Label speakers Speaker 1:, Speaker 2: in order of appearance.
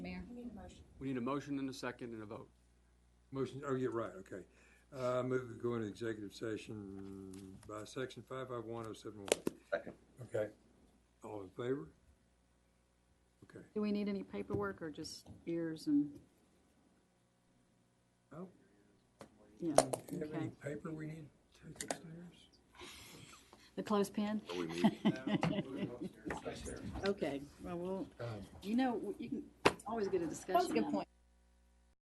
Speaker 1: question.
Speaker 2: We need a motion and a second and a vote.
Speaker 3: Motion, oh, yeah, right, okay. Uh, move to go into executive session by section five five one oh seven one.
Speaker 1: Second.
Speaker 3: Okay. All in favor? Okay.
Speaker 4: Do we need any paperwork or just ears and,
Speaker 3: Oh,
Speaker 4: yeah,
Speaker 3: do you have any
Speaker 4: okay.
Speaker 3: paper we need to take upstairs?
Speaker 4: The clothespin?
Speaker 1: Are we meeting?
Speaker 4: Okay, well, we'll, you know, you can, it's always get a discussion.
Speaker 5: That's a good
Speaker 4: on it.
Speaker 5: point.